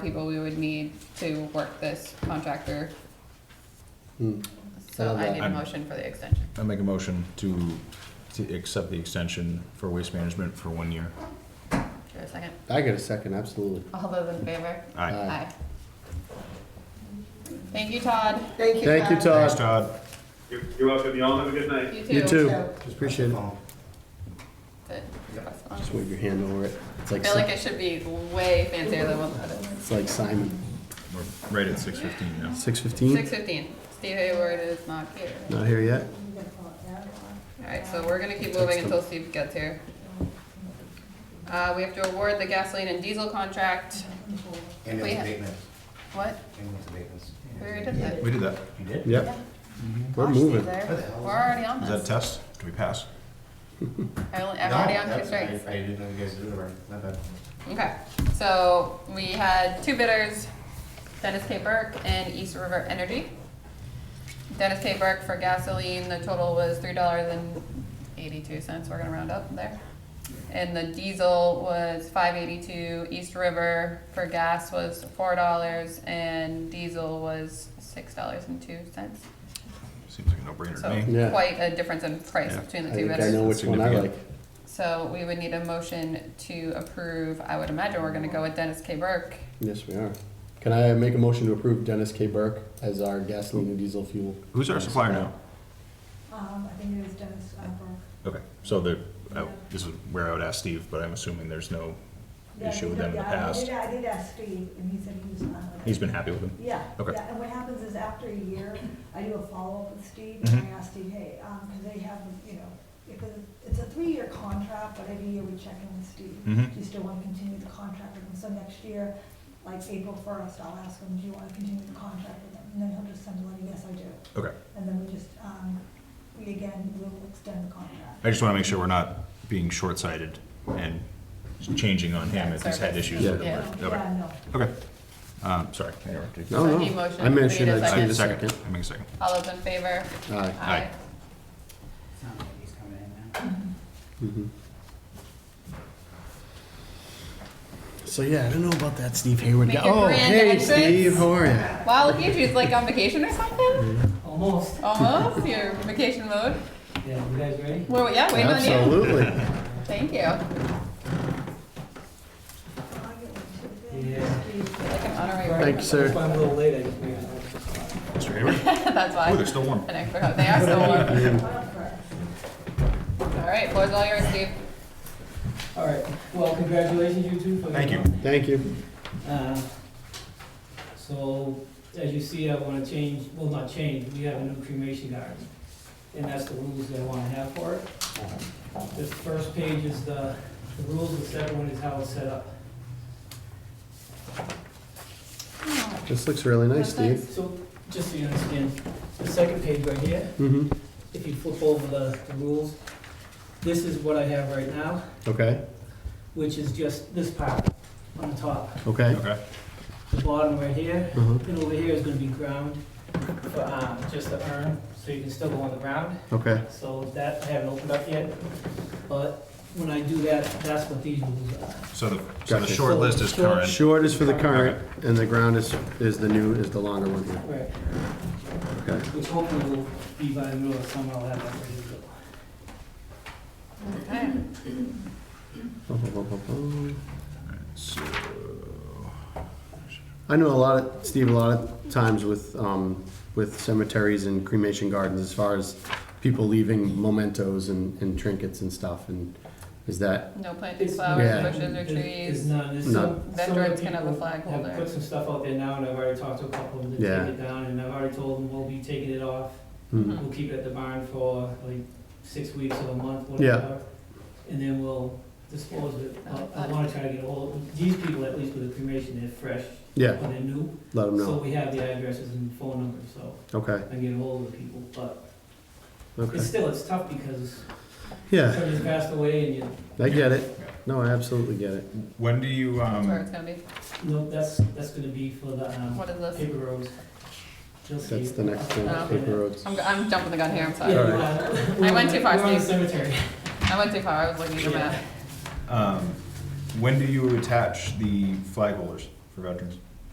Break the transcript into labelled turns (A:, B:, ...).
A: people we would need to work this contractor.
B: Hmm.
A: So I
B: Okay.
A: need a
C: I'm-
A: motion for the extension.
C: I make a motion to, to accept the extension for waste management for one year.
A: Do I have a second?
B: I get a second, absolutely.
A: All those in favor?
C: Aye.
B: Aye.
A: Thank you, Todd.
D: Thank you.
B: Thank you,
C: Thanks,
B: Todd.
C: Todd.
E: You're you're welcome, y'all have a good night.
A: You too.
B: You too. Appreciate it.
A: Good. Pass it on.
B: Just wave your hand over it. It's
A: I
B: like,
A: feel like
B: Si-
A: it should be way fancier than what that is.
B: it's like Simon.
C: We're right at six fifteen now.
B: Six
A: Six
B: fifteen?
A: fifteen. Steve Hayward is not here.
B: Not here yet?
A: Alright, so we're gonna keep moving until Steve gets here. Uh, we have to award the gasoline and diesel contract.
F: Ambulance
A: We ha-
F: abatements,
A: What?
F: ambulance abatements.
A: We already did that.
C: We did that.
F: You did?
B: Yep, we're
A: Gosh,
B: moving.
A: Steve,
F: What the hell
A: We're
F: is
A: we're already on
C: Is that a
A: this.
C: test? Do we pass?
A: I only, I'm already
F: No,
A: on two
F: that's- I-
A: strikes.
F: I didn't know you guys did it right, my bad.
A: Okay, so we had two bidders, Dennis K. Burke and East River Energy. Dennis K. Burke for gasoline, the total was three dollars and eighty-two cents, we're gonna round up there. And the diesel was five eighty-two, East River for gas was four dollars, and diesel was six dollars and two cents.
C: Seems like a no-brainer
A: So
C: to me.
B: Yeah.
A: quite a difference in price
C: Yeah.
A: between
B: I
A: the two
B: think
A: bidders.
B: I know which one I like.
C: Significant.
A: So we would need a motion to approve, I would imagine we're gonna go with Dennis K. Burke.
B: Yes, we are. Can I make a motion to approve Dennis K. Burke as our gasoline and diesel fuel?
C: Who's our supplier now?
G: Um, I think it was Dennis Upper.
C: Okay, so the, I- this is where I would ask Steve, but I'm assuming there's no issue with them in the past.
G: I did ask Steve, and he said he was fine with it.
C: He's been happy with them.
G: Yeah,
C: Okay.
G: yeah, and what happens is after a year, I do a follow-up with Steve,
C: Mhm.
G: and I ask Steve, hey, um, because they have, you know, because it's a three-year contract, but every year we check in with Steve.
C: Mhm.
G: Do you still want to continue the contract with him? So next year, like April first, I'll ask him, do you want to continue the contract with him? And then he'll just send a letter, yes, I do.
C: Okay.
G: And then we just, um, we again, will extend the contract.
C: I just want to make sure we're not being short-sighted and changing on him if he's had issues with
A: Yeah.
C: it. Okay,
G: Yeah, no.
C: okay. Um, sorry, I interrupted. you.
B: No,
A: he
B: no,
A: motioned.
B: I mentioned
A: We need a
B: I just need a
C: Second,
B: second.
C: I make a second.
A: All those in favor?
B: Aye.
C: Aye.
D: Sounds like he's coming in now.
B: Mhm. So, yeah, I don't know about that Steve Hayward
A: Make
B: guy.
A: your
B: Oh,
A: grand
B: hey,
A: entrance.
B: Steve, how are you?
A: Aye. Wow, look at you, it's like on vacation or something?
D: Almost.
A: Almost, you're vacation mode.
D: Yeah, you guys ready?
A: Well, yeah, wait on you.
B: Absolutely.
A: Thank you. You're
G: I'll get one too, then.
D: Yeah.
A: Like an honorary.
B: Thank you,
A: member.
B: sir.
D: That's why I'm a little late. I didn't realize.
C: Mr. Hayward?
A: That's
C: Oh, they're
A: why,
C: still warm.
A: an extra, hug. they are so warm.
G: Okay.
A: All right, floor's all yours, Steve.
D: All right, well, congratulations, you two. for
C: Thank
D: your-
C: you.
B: Thank you.
D: Uh, So, as you see, I wanna change, well, not change, we have a new cremation garden, and that's the rules that I wanna have for it. The first page is the, the rules, the second one is how it's set up.
B: This looks really nice,
A: That's nice.
B: Steve.
D: So, just so you understand, the second page right here,
B: hmm
D: if you flip over the, the rules, this is what I have right now,
B: Okay,
D: which is just this part on the top.
B: okay.
C: Okay.
D: The bottom right here,
B: Uh-huh.
D: and over here is gonna be ground for, um, just the urn, so you can still go on the ground.
B: Okay,
D: So that, I haven't opened up yet, but when I do that, that's what these rules are.
C: So the, so the
B: Gotcha.
C: short list is
D: Short-
C: current.
B: short is for the current, and the ground is, is the new, is the longer one here,
D: Right.
B: okay?
D: Which hopefully will be by the middle of summer, I'll have that ready to go.
A: Okay.
B: Bum, bum, bum, bum, bum.
C: So,
B: I know a lot of, Steve, a lot of times with, um, with cemeteries and cremation gardens, as far as people leaving mementos and, and trinkets and stuff, and is that,
A: No planting
D: It's-
A: flowers,
B: Yeah.
A: bushes or
D: There's- there's
A: trees.
D: none. There's
B: None.
D: some- some
A: Veterans
D: the
A: can have a
D: people
A: flag
D: have
A: holder.
D: Put some stuff out there now, and I've already talked to a couple of them
B: Yeah.
D: to take it down, and I've already told them we'll be taking it off.
B: hmm,
A: Mhm.
D: We'll keep it at the barn for like six weeks or a month,
B: Yeah.
D: whatever. And then we'll dispose of it. I- I
A: Okay.
D: wanna try to get hold, these people, at least with the cremation, they're fresh,
B: yeah,
D: when they're new.
B: let them
D: So
B: know,
D: we have the addresses and phone numbers, so
B: okay,
D: I can get hold of the people, but
B: okay,
D: it's still, it's tough because
B: yeah,
D: somebody's passed away and you,
B: I get it, no, I absolutely get it,
C: when do you,
A: That's where it's
C: um,
A: gonna be.
D: no, that's, that's gonna be for the, um,
A: What is this?
D: paper roads. You'll see.
B: that's the next thing,
A: Oh.
B: paper roads.
A: I'm, I'm jumping the gun here, I'm
D: Yeah,
A: sorry.
B: All
D: we're
B: right.
D: on-
A: I went too far,
D: We're on the
A: Steve.
D: cemetery.
A: I went too far, I was looking at the
D: Yeah.
A: map.
C: um, when do you attach the flag holders for veterans?